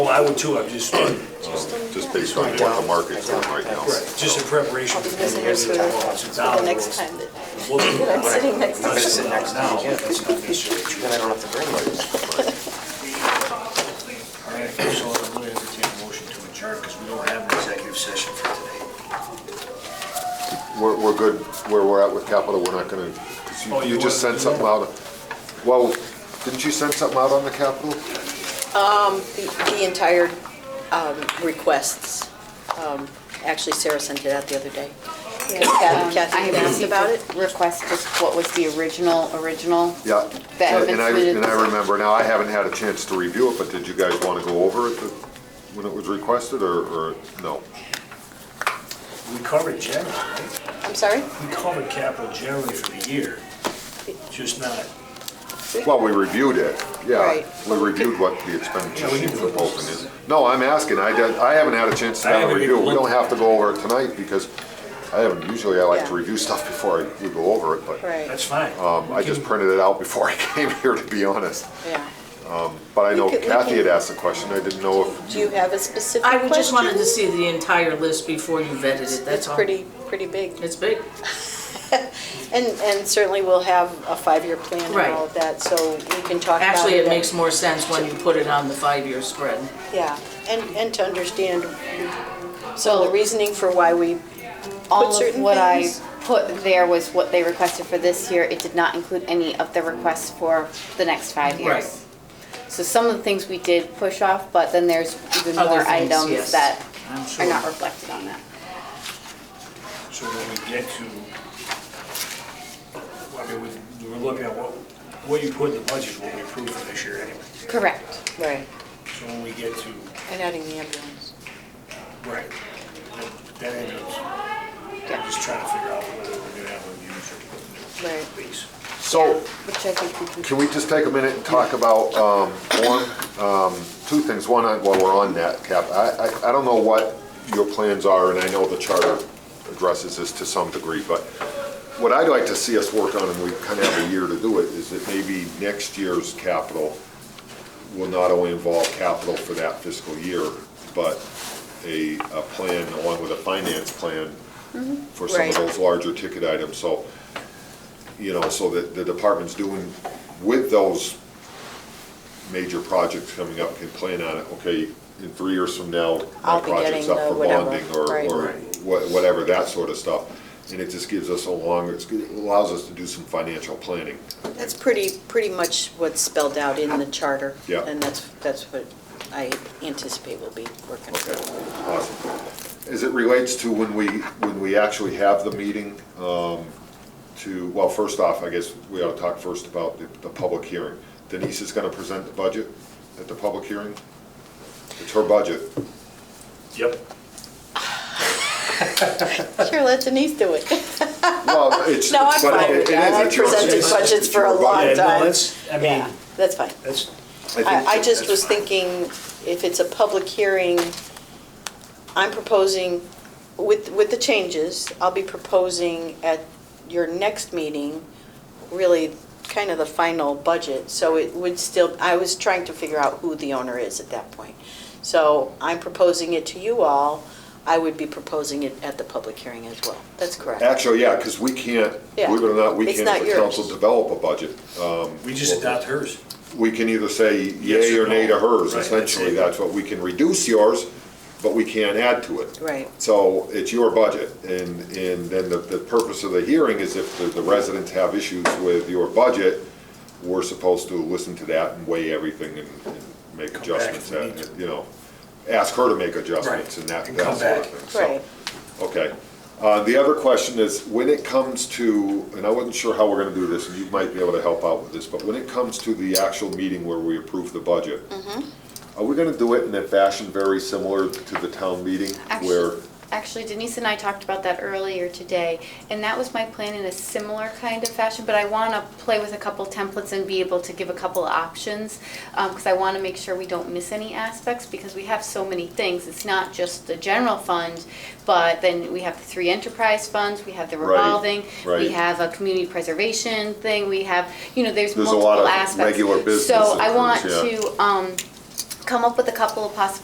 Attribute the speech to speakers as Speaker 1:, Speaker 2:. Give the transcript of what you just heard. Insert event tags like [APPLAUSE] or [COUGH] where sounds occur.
Speaker 1: I would too, I'm
Speaker 2: [COUGHS]
Speaker 1: just, right,
Speaker 3: just based on what the market's doing right now.
Speaker 1: just in preparation. for the
Speaker 4: Because there's food
Speaker 1: Since now
Speaker 4: the
Speaker 1: it
Speaker 4: next
Speaker 1: was-
Speaker 4: time that,
Speaker 1: Well,
Speaker 4: I'm sitting next to
Speaker 1: not
Speaker 4: you.
Speaker 1: sitting down now, but that's not necessarily true.
Speaker 2: Then I don't have to bring one.
Speaker 1: All right, so I'm going to entertain a motion to adjourn because we don't have an executive session for today.
Speaker 3: We're, we're good where we're at with capital, we're not gonna, 'cause
Speaker 1: Oh,
Speaker 3: you,
Speaker 1: you
Speaker 3: you just
Speaker 1: wanna
Speaker 3: sent
Speaker 1: do
Speaker 3: something out. Well, didn't you send something out on the capital?
Speaker 4: the the entire um, requests, um, actually Sarah sent it out the other day. Kathy-
Speaker 5: Yeah, um,
Speaker 4: Kathy
Speaker 5: I
Speaker 4: asked
Speaker 5: received
Speaker 4: about
Speaker 5: a
Speaker 4: it?
Speaker 5: Request just what was the original, original.
Speaker 3: Yeah.
Speaker 5: That had been
Speaker 3: And I,
Speaker 5: submitted.
Speaker 3: and I remember, now I haven't had a chance to review it, but did you guys wanna go over it the- when it was requested, or, or, no?
Speaker 1: We covered general, right?
Speaker 4: I'm sorry?
Speaker 1: We covered capital generally for the year, just not,
Speaker 3: Well, we reviewed it, yeah.
Speaker 4: Right.
Speaker 3: We reviewed what the expenditure
Speaker 1: Yeah, we
Speaker 3: sheet
Speaker 1: can
Speaker 3: for
Speaker 1: put
Speaker 3: Vulcan is. No, I'm asking, I did, I haven't had a chance to
Speaker 1: I
Speaker 3: have a
Speaker 1: haven't
Speaker 3: review.
Speaker 1: even
Speaker 3: We don't
Speaker 1: looked.
Speaker 3: have to go over it tonight, because I haven't, usually I like to
Speaker 4: Yeah.
Speaker 3: review stuff before I, we go over it, but.
Speaker 4: Right,
Speaker 1: that's fine.
Speaker 3: Um, I
Speaker 1: We can-
Speaker 3: just printed it out before [LAUGHS] I came here, to be honest.
Speaker 4: yeah.
Speaker 3: But I know
Speaker 4: We could- we
Speaker 3: Kathy had
Speaker 4: can-
Speaker 3: asked the question, I didn't know if,
Speaker 4: Do you have a specific
Speaker 6: I
Speaker 4: question?
Speaker 6: would just wanted to see the entire list before you vetted it,
Speaker 4: It's
Speaker 6: that's all.
Speaker 4: pretty, pretty big.
Speaker 6: It's big.
Speaker 4: And, and certainly we'll have a five-year plan
Speaker 6: Right.
Speaker 4: and all of that, so we can talk about it.
Speaker 6: Actually, it
Speaker 4: at-
Speaker 6: makes more sense when you put it on the five-year spread.
Speaker 4: Yeah, and, and to understand so the reasoning for why we put
Speaker 5: All of
Speaker 4: certain
Speaker 5: what I
Speaker 4: things.
Speaker 5: put there was what they requested for this year. It did not include any of the requests for the next five
Speaker 6: Right.
Speaker 5: years. So some of the things we did push off, but then there's even
Speaker 6: Other
Speaker 5: more
Speaker 6: things, yes.
Speaker 5: items that
Speaker 6: I'm
Speaker 5: are
Speaker 6: sure.
Speaker 5: not reflected on that.
Speaker 1: So when we get to, I mean, we- we're looking at what, what you put in the budget is what we approved for this year anyway.
Speaker 5: Correct.
Speaker 4: Right,
Speaker 1: So when we get to,
Speaker 4: and adding the ambulance.
Speaker 1: right, that- that ambulance, I'm just trying to figure out whether we're gonna have a use or
Speaker 4: Right.
Speaker 1: lease.
Speaker 3: so,
Speaker 5: Which I think we can.
Speaker 3: can we just take a minute and talk about, um, one, um, two things, one, on- while we're on that, Cap, I, I, I don't know what your plans are, and I know the charter addresses this to some degree, but what I'd like to see us work on, and we kind of have a year to do it, is that maybe next year's capital will not only involve capital for that fiscal year, but a, a plan along with a finance plan for some of
Speaker 4: Mm-hmm. Right.
Speaker 3: those larger ticket items, so, you know, so that the department's doing with those major projects coming up can plan on it, okay, in three years from now, my
Speaker 4: I'll be
Speaker 3: project's
Speaker 4: getting
Speaker 3: up
Speaker 4: the
Speaker 3: for
Speaker 4: whatever,
Speaker 3: bonding or,
Speaker 4: right.
Speaker 3: or wha- whatever, that sort of stuff. And it just gives us a longer, it's- it allows us to do some financial planning.
Speaker 4: That's pretty, pretty much what's spelled out in the charter.
Speaker 3: Yeah.
Speaker 4: And that's, that's what I anticipate we'll be working
Speaker 3: Okay,
Speaker 4: through.
Speaker 3: awesome. As Uh, it relates to when we, when we actually have the meeting, um, to, well, first off, I guess we ought to talk first about the, the public hearing. Denise is gonna present the budget at the public hearing? It's her budget.
Speaker 1: Yep.
Speaker 4: Sure, let Denise do it.
Speaker 3: Well, [LAUGHS] it's.
Speaker 4: No, I'm
Speaker 3: but
Speaker 4: fine
Speaker 3: it-
Speaker 4: with
Speaker 3: it
Speaker 4: that.
Speaker 3: is,
Speaker 4: I've
Speaker 3: it's your-
Speaker 4: presented
Speaker 3: it's-
Speaker 4: budgets
Speaker 3: it's
Speaker 4: for
Speaker 3: your
Speaker 4: a
Speaker 3: budget.
Speaker 4: long
Speaker 1: Yeah, no,
Speaker 4: time.
Speaker 1: that's, I mean,
Speaker 4: Yeah, That's fine.
Speaker 1: that's,
Speaker 3: think
Speaker 4: I, I just
Speaker 1: that's
Speaker 4: was
Speaker 1: fine.
Speaker 4: thinking, if it's a public hearing, I'm proposing, with, with the changes, I'll be proposing at your next meeting, really, kind of the final budget, so it would still, I was trying to figure out who the owner is at that point. So I'm proposing it to you all, I would be proposing it at the public hearing as well. That's correct.
Speaker 3: Actually, yeah, because we can't,
Speaker 4: Yeah.
Speaker 3: believe it or not, we
Speaker 4: It's
Speaker 3: can't,
Speaker 4: not
Speaker 3: as a council,
Speaker 4: yours.
Speaker 3: develop a budget.
Speaker 1: we just adopt hers.
Speaker 3: We can either say
Speaker 1: Yes
Speaker 3: yay
Speaker 1: or
Speaker 3: or nay to
Speaker 1: no. Right,
Speaker 3: hers,
Speaker 1: that's
Speaker 3: essentially,
Speaker 1: it.
Speaker 3: that's what, we can reduce yours, but we can't add to it.
Speaker 4: Right.
Speaker 3: So it's your budget, and, and then the, the purpose of the hearing is if the, the residents have issues with your budget, we're supposed to listen to that and weigh everything and, and make
Speaker 1: Come back
Speaker 3: adjustments,
Speaker 1: if we need
Speaker 3: that- you know, ask her to make
Speaker 1: Right,
Speaker 3: adjustments and that,
Speaker 1: and
Speaker 3: that
Speaker 1: come
Speaker 3: sort of
Speaker 1: back.
Speaker 3: thing, so.
Speaker 4: Right,
Speaker 3: Okay. Uh, The other question is, when it comes to, and I wasn't sure how we're gonna do this, and you might be able to help out with this, but when it comes to the actual meeting where we approve the budget, are we gonna do it in a fashion very similar to the town meeting where?
Speaker 5: Actually, actually Denise and I talked about that earlier today, and that was my plan in a similar kind of fashion, but I want to play with a couple templates and be able to give a couple options, because I want to make sure we don't miss any aspects, because we have so many things. It's not just the general fund, but then we have the three enterprise funds, we have the
Speaker 3: Right,
Speaker 5: revolving, we
Speaker 3: right.
Speaker 5: have a community preservation thing, we have, you know, there's
Speaker 3: There's a
Speaker 5: multiple
Speaker 3: lot of
Speaker 5: aspects.
Speaker 3: regular business
Speaker 5: So I
Speaker 3: that
Speaker 5: want
Speaker 3: comes, yeah.
Speaker 5: to um, come up with a couple of possi-